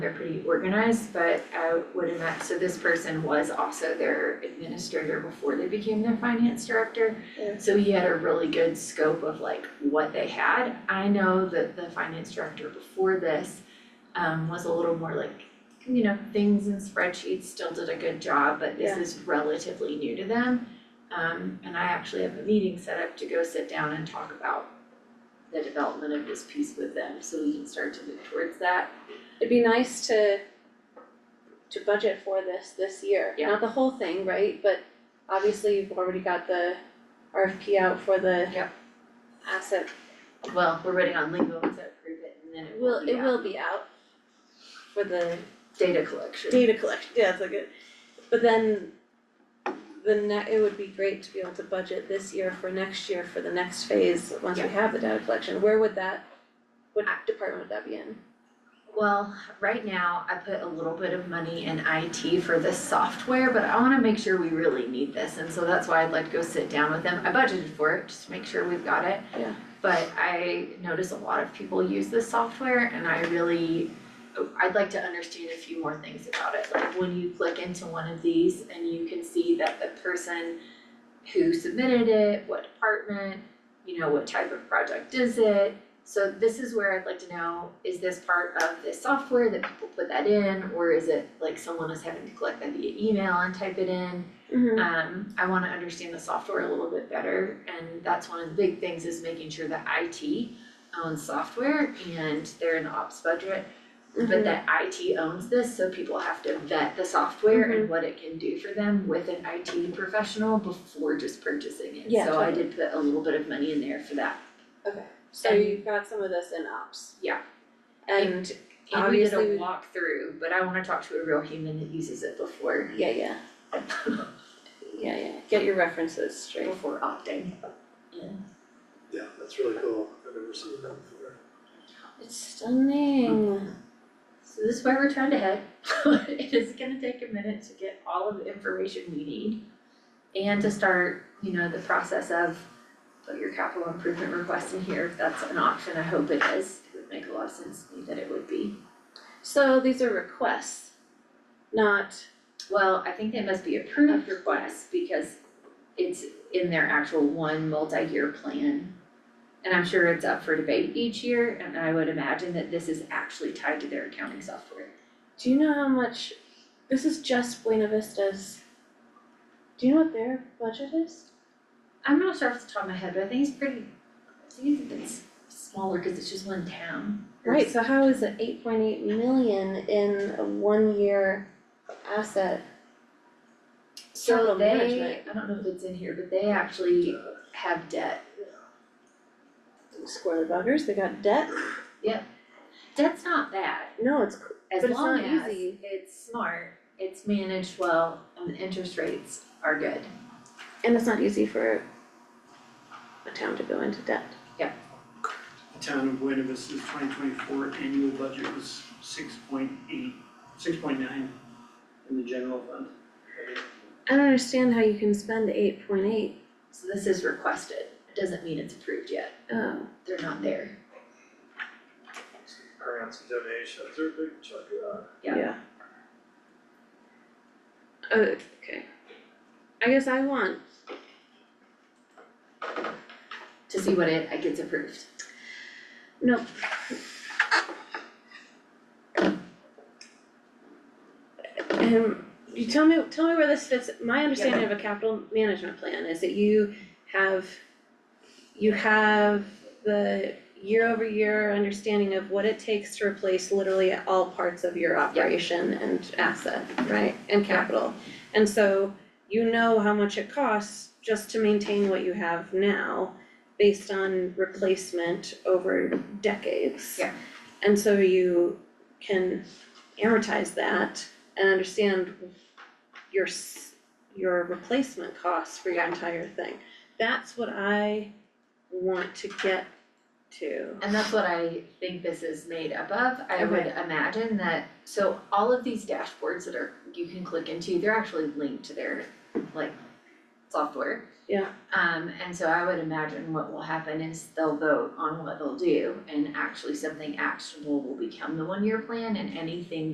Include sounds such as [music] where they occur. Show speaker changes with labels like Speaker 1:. Speaker 1: They're pretty organized, but I would imagine, so this person was also their administrator before they became their finance director.
Speaker 2: Yeah.
Speaker 1: So he had a really good scope of like what they had. I know that the finance director before this um was a little more like, you know, things and spreadsheets, still did a good job, but this
Speaker 2: Yeah.
Speaker 1: is relatively new to them. Um and I actually have a meeting set up to go sit down and talk about the development of this piece with them, so we can start to move towards that.
Speaker 2: It'd be nice to to budget for this this year,
Speaker 1: Yeah.
Speaker 2: not the whole thing, right, but obviously you've already got the RFP out for the
Speaker 1: Yep.
Speaker 2: asset,
Speaker 1: Well, we're waiting on legal to approve it and then it
Speaker 2: it will,
Speaker 1: will be
Speaker 2: it
Speaker 1: out.
Speaker 2: will be out for the
Speaker 1: Data collection.
Speaker 2: data collection, yeah, that's like it, but then the ne- it would be great to be able to budget this year for next year for the next phase, once we
Speaker 1: Yeah.
Speaker 2: have the data collection, where would that, what
Speaker 1: I-
Speaker 2: department would that be in?
Speaker 1: Well, right now I put a little bit of money in IT for this software, but I wanna make sure we really need this. And so that's why I'd like to go sit down with them. I budgeted for it, just to make sure we've got it.
Speaker 2: Yeah.
Speaker 1: But I notice a lot of people use this software and I really, I'd like to understand a few more things about it. Like when you click into one of these and you can see that the person who submitted it, what department, you know, what type of project is it? So this is where I'd like to know, is this part of the software that people put that in, or is it like someone is having to collect that via email and type it in?
Speaker 2: Mm-hmm.
Speaker 1: Um, I wanna understand the software a little bit better, and that's one of the big things is making sure that IT owns software and they're in the ops budget.
Speaker 2: Mm-hmm.
Speaker 1: But that IT owns this, so people have to vet the software
Speaker 2: Mm-hmm.
Speaker 1: and what it can do for them with an IT professional before just purchasing it.
Speaker 2: Yeah,
Speaker 1: So I
Speaker 2: totally.
Speaker 1: did put a little bit of money in there for that.
Speaker 2: So
Speaker 1: And-
Speaker 2: you've got some of this in ops.
Speaker 1: Yeah.
Speaker 2: And,
Speaker 1: And we did a
Speaker 2: Obviously, we-
Speaker 1: walkthrough, but I wanna talk to a real human that uses it before, [laughs]
Speaker 2: yeah, yeah, yeah, yeah, get your references straight.
Speaker 1: before opting. Yeah.
Speaker 3: Yeah, that's really cool. I've never seen that before.
Speaker 2: It's stunning.
Speaker 1: So this is where we're trying to head. [laughs] It is gonna take a minute to get all of the information we need and to start, you know, the process of put your capital improvement request in here, if that's an option, I hope it is. It would make a lot of sense to me that it would be.
Speaker 2: So these are requests, not,
Speaker 1: Well, I think they must be approved requests because it's in their actual one multi-year plan. And I'm sure it's up for debate each year, and I would imagine that this is actually tied to their accounting software.
Speaker 2: do you know how much, this is just Buena Vista's. Do you know what their budget is?
Speaker 1: I'm not sure off the top of my head, but I think it's pretty, I think it's smaller because it's just one town.
Speaker 2: Right, so how is it eight point eight million in a one-year asset?
Speaker 1: So
Speaker 2: Capital
Speaker 1: they,
Speaker 2: management.
Speaker 1: I don't know if it's in here, but they actually have debt.
Speaker 2: Square the buggers, they got debt?
Speaker 1: Debt's not bad,
Speaker 2: No, it's,
Speaker 1: as
Speaker 2: But it's
Speaker 1: long
Speaker 2: not
Speaker 1: as
Speaker 2: easy.
Speaker 1: it's smart, it's managed well, and the interest rates are good.
Speaker 2: and it's not easy for a town to go into debt.
Speaker 4: The town of Buena Vista's twenty twenty-four annual budget was six point eight, six point nine in the general fund.
Speaker 2: I don't understand how you can spend eight point eight,
Speaker 1: So this is requested, it doesn't mean it's approved yet,
Speaker 2: um,
Speaker 1: they're not there.
Speaker 3: Grants and donations are a big chunk of
Speaker 1: Yeah.
Speaker 2: yeah. Oh, okay. I guess I want,
Speaker 1: To see what it, it gets approved.
Speaker 2: no. Um, you tell me, tell me where this fits, my understanding of a capital management plan is that you have, you have the year-over-year understanding of what it takes to replace literally all parts of your operation and asset, right, and capital. And so you know how much it costs just to maintain what you have now based on replacement over decades.
Speaker 1: Yeah.
Speaker 2: And so you can amortize that and understand your s- your replacement costs for your entire thing. That's what I want to get to.
Speaker 1: And that's what I think this is made up of. I would imagine that, so all of these dashboards that are, you can click into, they're actually linked to their, like, software.
Speaker 2: Yeah.
Speaker 1: Um, and so I would imagine what will happen is they'll vote on what they'll do, and actually something actionable will become the one-year plan, and anything